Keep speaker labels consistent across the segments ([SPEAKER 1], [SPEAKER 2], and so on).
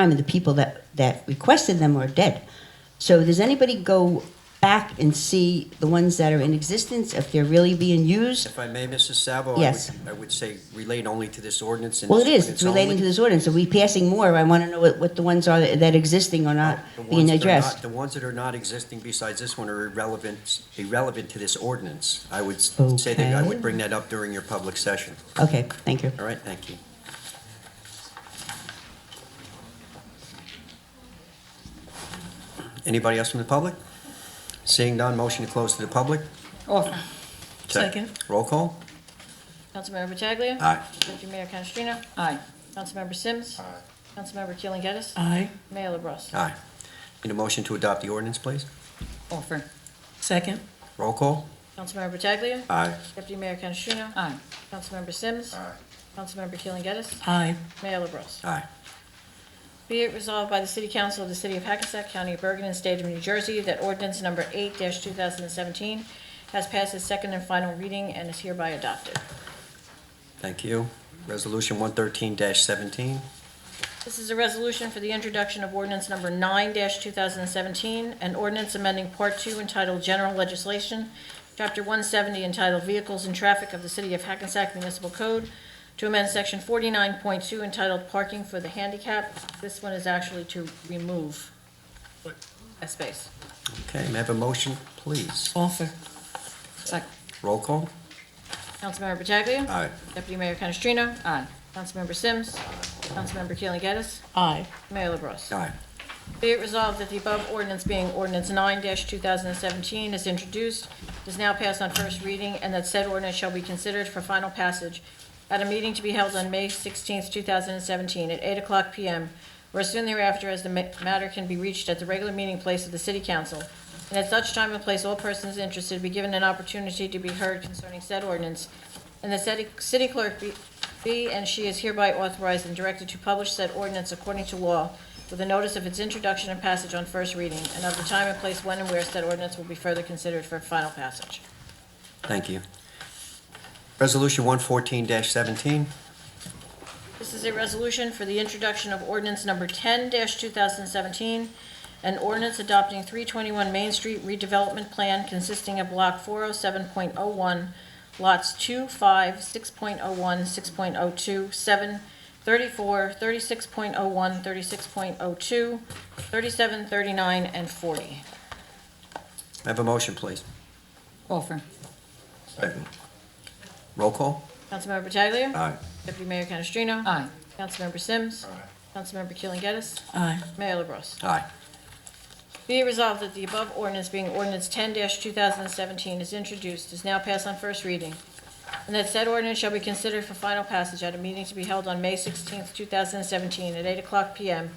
[SPEAKER 1] time, and the people that, that requested them are dead. So does anybody go back and see the ones that are in existence, if they're really being used?
[SPEAKER 2] If I may, Mrs. Sabo? I would-
[SPEAKER 1] Yes.
[SPEAKER 2] I would say relate only to this ordinance and
[SPEAKER 1] Well,
[SPEAKER 2] this
[SPEAKER 1] it is, it's
[SPEAKER 2] ordinance only.
[SPEAKER 1] relating to this ordinance, are we passing more? I want to know what, what the ones are that that existing are not
[SPEAKER 2] The
[SPEAKER 1] being
[SPEAKER 2] ones that are not-
[SPEAKER 1] addressed.
[SPEAKER 2] The ones that are not existing besides this one are irrelevant, irrelevant to this ordinance. I would s- say that I
[SPEAKER 1] Okay.
[SPEAKER 2] would bring that up during your public session.
[SPEAKER 1] Okay, thank you.
[SPEAKER 2] All right, thank you. Anybody else from the public? Seeing none, motion to close to the public?
[SPEAKER 3] Offer.
[SPEAKER 4] Uh, Second.
[SPEAKER 2] Roll call?
[SPEAKER 4] Councilmember Pataglia.
[SPEAKER 2] Aye.
[SPEAKER 4] Deputy Mayor Canestrino.
[SPEAKER 3] Aye.
[SPEAKER 4] Councilmember Sims. Aye. Councilmember Keeling Geddes.
[SPEAKER 3] Aye.
[SPEAKER 4] Mayor LaBrus.
[SPEAKER 2] Aye. Need a motion to adopt the ordinance, please?
[SPEAKER 3] Offer.
[SPEAKER 4] Second.
[SPEAKER 2] Roll call?
[SPEAKER 4] Councilmember Pataglia.
[SPEAKER 2] Aye.
[SPEAKER 4] Deputy Mayor Canestrino.
[SPEAKER 3] Aye.
[SPEAKER 4] Councilmember Sims. Aye. Councilmember Keeling Geddes.
[SPEAKER 3] Aye.
[SPEAKER 4] Mayor LaBrus.
[SPEAKER 2] Aye.
[SPEAKER 4] Be it resolved by the City Council of the City of Hackensack County of Bergen and State of New Jersey that ordinance number 8-2017 has passed its second and final reading and is hereby adopted.
[SPEAKER 2] Thank you. Resolution one thirteen seventeen.
[SPEAKER 4] This is a resolution for the introduction of ordinance number 9-2017, an ordinance amending Part 2 entitled General Legislation, Chapter 170 entitled Vehicles and Traffic of the City of Hackensack Municipal Code to amend Section 49.2 entitled Parking for the Handicap. This one is actually to remove a space.
[SPEAKER 2] Okay, may I have a motion, please?
[SPEAKER 3] Offer. Second.
[SPEAKER 2] Roll call?
[SPEAKER 4] Councilmember Pataglia.
[SPEAKER 2] Aye.
[SPEAKER 4] Deputy Mayor Canestrino.
[SPEAKER 3] Aye.
[SPEAKER 4] Councilmember Sims. Councilmember Keeling Geddes.
[SPEAKER 3] Aye.
[SPEAKER 4] Mayor LaBrus.
[SPEAKER 2] Aye.
[SPEAKER 4] Be it resolved that the above ordinance being ordinance nine two thousand and seventeen is introduced, is now passed on first reading, and that said ordinance shall be considered for final passage at a meeting to be held on May sixteenth, two thousand and seventeen, at eight o'clock PM, or as soon thereafter as the ma- matter can be reached at the regular meeting place of the city council. And at such time and place, all persons interested be given an opportunity to be heard concerning said ordinance, and the city city clerk be, be and she is hereby authorized and directed to publish said ordinance according to law with a notice of its introduction and passage on first reading, and of the time and place when and where said ordinance will be further considered for final passage.
[SPEAKER 2] Thank you. Resolution one fourteen seventeen.
[SPEAKER 4] This is a resolution for the introduction of ordinance number 10-2017, an ordinance adopting 321 Main Street redevelopment plan consisting of Block 407.01, lots 2, 5, 6.01, 6.02, 7, 34, 36.01, 36.02, 37, 39, and 40.
[SPEAKER 2] May I have a motion, please?
[SPEAKER 3] Offer.
[SPEAKER 2] Second. Roll call?
[SPEAKER 4] Councilmember Pataglia.
[SPEAKER 2] Aye.
[SPEAKER 4] Deputy Mayor Canestrino.
[SPEAKER 3] Aye.
[SPEAKER 4] Councilmember Sims. Councilmember Keeling Geddes.
[SPEAKER 3] Aye.
[SPEAKER 4] Mayor LaBrus.
[SPEAKER 2] Aye.
[SPEAKER 4] Be it resolved that the above ordinance being ordinance ten two thousand and seventeen is introduced, is now passed on first reading, and that said ordinance shall be considered for final passage at a meeting to be held on May sixteenth, two thousand and seventeen, at eight o'clock PM,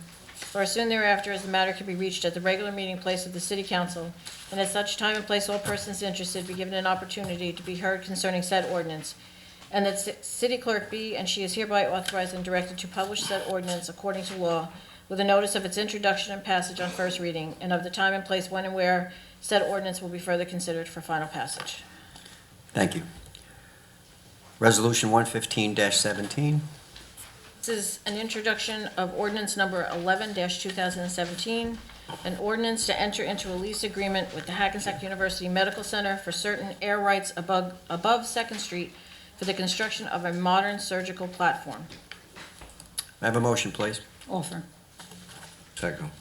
[SPEAKER 4] or as soon thereafter as the matter can be reached at the regular meeting place of the city council, and at such time and place all persons interested be given an opportunity to be heard concerning said ordinance, and that ci- city clerk be and she is hereby authorized and directed to publish said ordinance according to law with a notice of its introduction and passage on first reading, and of the time and place when and where said ordinance will be further considered for final passage.
[SPEAKER 2] Thank you. Resolution one fifteen seventeen.
[SPEAKER 4] This is an introduction of ordinance number 11-2017, an ordinance to enter into a lease agreement with the Hackensack University Medical Center for certain air rights above, above Second Street for the construction of a modern surgical platform.
[SPEAKER 2] May I have a motion, please?
[SPEAKER 3] Offer.
[SPEAKER 2] Second.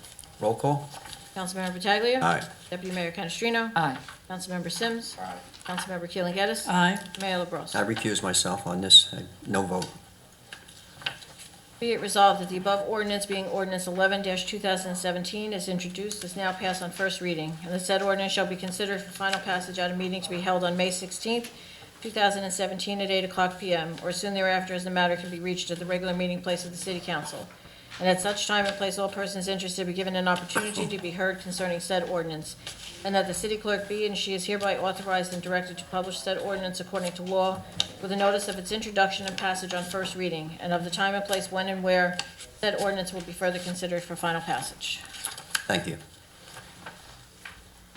[SPEAKER 2] Roll call?
[SPEAKER 4] Councilmember Pataglia.
[SPEAKER 2] Aye.
[SPEAKER 4] Deputy Mayor Canestrino.
[SPEAKER 3] Aye.
[SPEAKER 4] Councilmember Sims. Aye. Councilmember Keeling Geddes.
[SPEAKER 3] Aye.
[SPEAKER 4] Mayor LaBrus.
[SPEAKER 2] I recuse myself on this. I- No vote.
[SPEAKER 4] Be it resolved that the above ordinance being ordinance eleven two thousand and seventeen is introduced, is now passed on first reading, and the said ordinance shall be considered for final passage at a meeting to be held on May sixteenth, two thousand and seventeen, at eight o'clock PM, or soon thereafter, as the matter can be reached at the regular meeting place of the city council. And at such time and place, all persons interested be given an opportunity to be heard concerning said ordinance, and that the city clerk be and she is hereby authorized and directed to publish said ordinance according to law with a notice of its introduction and passage on first reading, and of the time and place when and where said ordinance will be further considered for final passage.
[SPEAKER 2] Thank you.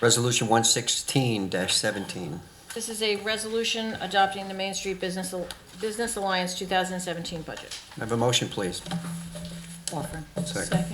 [SPEAKER 2] Resolution one sixteen seventeen.
[SPEAKER 4] This is a resolution adopting the Main Street Business Al- Business Alliance 2017 budget.
[SPEAKER 2] May I have a motion, please?
[SPEAKER 3] Offer.
[SPEAKER 2] Second.